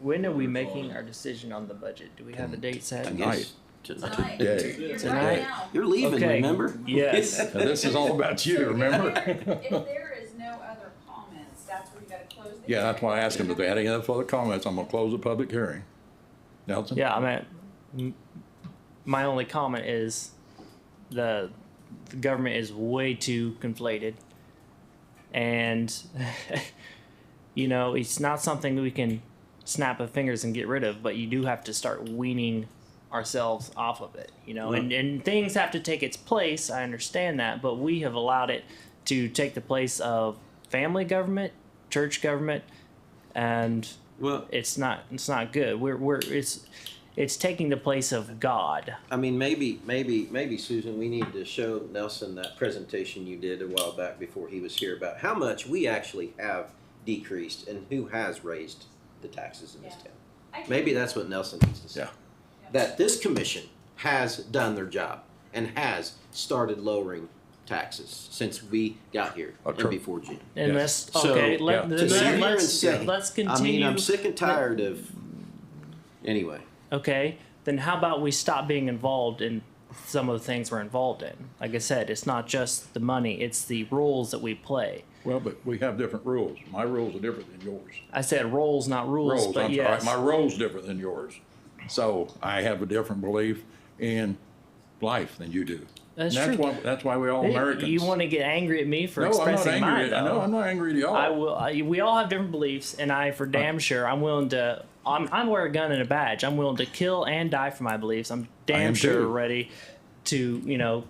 When are we making our decision on the budget? Do we have a date set? I guess tonight. Today. Tonight. Now, You're leaving, Okay. remember? Yes. Now, this is all about you, remember? If there is no other comments, that's where you gotta close the. Yeah, that's why I asked him, if they had any other further comments, I'm gonna close the public hearing. Nelson? Yeah, I mean, m- my only comment is the, the government is way too conflated. And, you know, it's not something we can snap of fingers and get rid of, but you do have to start weaning ourselves off of it, you know, and, and things have to take its place. I understand that, but we have allowed it to take the place of family government, church government, and Well, it's not it's not good. We're we're it's it's taking the place of God. I mean, maybe, maybe, maybe Susan, we need to show Nelson that presentation you did a while back before he was here about how much we actually have decreased and who has raised the taxes in this Yeah. town. I can- Maybe that's what Nelson needs to say. Yeah. That this commission has done their job and has started lowering taxes since we got here and Okay. before June. And Yes. let's okay. So, let, yeah. To let's, sit here and let's, say, let's I continue. mean, I'm sick and tired of, anyway. okay, then how about we stop being involved in some of the things we're involved in? Like I said, it's not just the money; it's the roles that we play. Well, but we have different rules. My rules are different than yours. I said roles, not rules, Rules, but I'm yes, sorry, my role's different than yours. So I have a different belief in life than you do. That's And true. why- That's why we're all Hey, Americans. You want to get angry at me for No, I'm not expressing mine? angry. at- I know, though. I'm not angry at y'all. I will. I, we all have different beliefs, and I, for damn sure, I'm willing to. I'm, I'm wear a gun and a badge. I'm willing to kill and die for my beliefs. I'm damn am sure too. ready to, you know,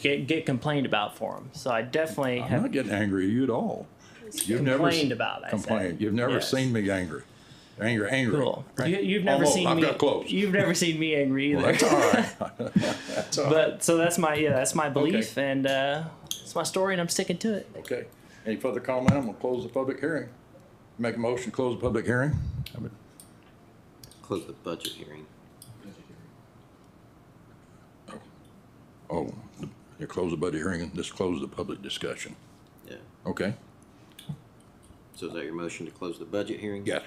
get get complained about for them. So I definitely I'm have not getting angry at you at all. You've never s- complained about. I said. complained. You've never Yes. seen me angry. Angry, angry. Cool. Right? You, you've never Almost. seen I've me. got close. You've never seen me angry either. Well, that's all right. that's all right. But so that's my yeah, that's my belief, and uh, it's my story, and I'm sticking to it. Okay. Any further comment? I'm gonna close the public hearing. Make a motion, to close the public hearing. Close the budget hearing. Oh, you close the budget hearing and just close the public discussion. Yeah. Okay? So is that your motion to close the budget hearing? Yes.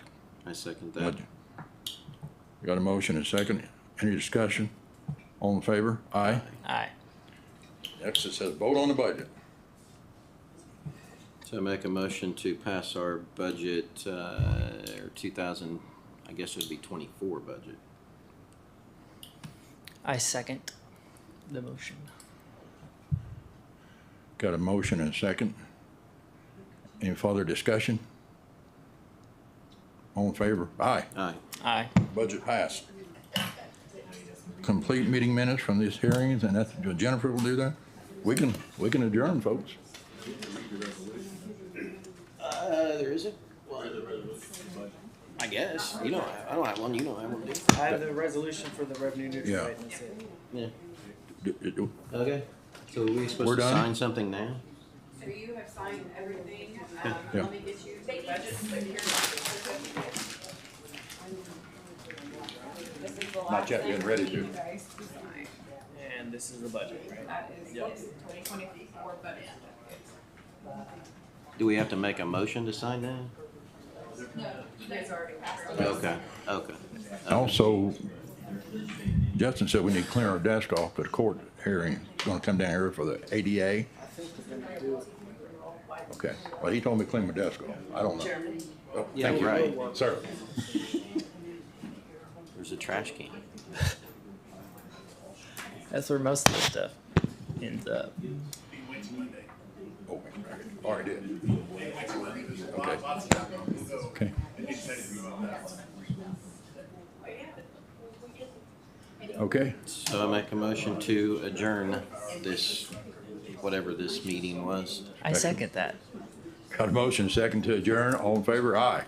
I second that. Budget. You got a motion and second. Any discussion? All in favor? Aye. Aye. Next it says vote on the budget. So I make a motion to pass our budget, uh, or two thousand, I guess it would be twenty-four budget. I second the motion. Got a motion and a second. Any further discussion? All in favor? Aye. Aye. Aye. Budget passed. Complete meeting minutes from these hearings, and that's, Jennifer will do that. We can, we can adjourn, folks. Uh, there isn't one. I guess. You don't, have- I don't have one, you don't have one, do you? I have the resolution for the revenue neutral Yeah. rate, and that's it. Yeah. D- d- Okay. So are we We're supposed to done? sign something now? So you have signed everything, um, Yeah. let me get you the budget, so here's. This is the last. Not yet, thing getting ready for to. you guys to sign. And this is the budget, right? That is this twenty twenty-four budget. Do we have to make a motion to sign that? No, you guys already passed it. Okay, okay. Also, Justin said we need to clear our desk off, the court hearing is gonna come down here for the ADA. I think we're gonna do it. Okay, well, he told me to clean my desk off. I don't know. Chairman, Oh, Yeah, Thank you. right. Sir. There's a trash can. That's where most of the stuff ends up. Oh, All right, did. Okay. Oh, Okay. Okay, So I make a motion to adjourn this, whatever this meeting was. I second that. got a motion, second to adjourn, all in favor, aye.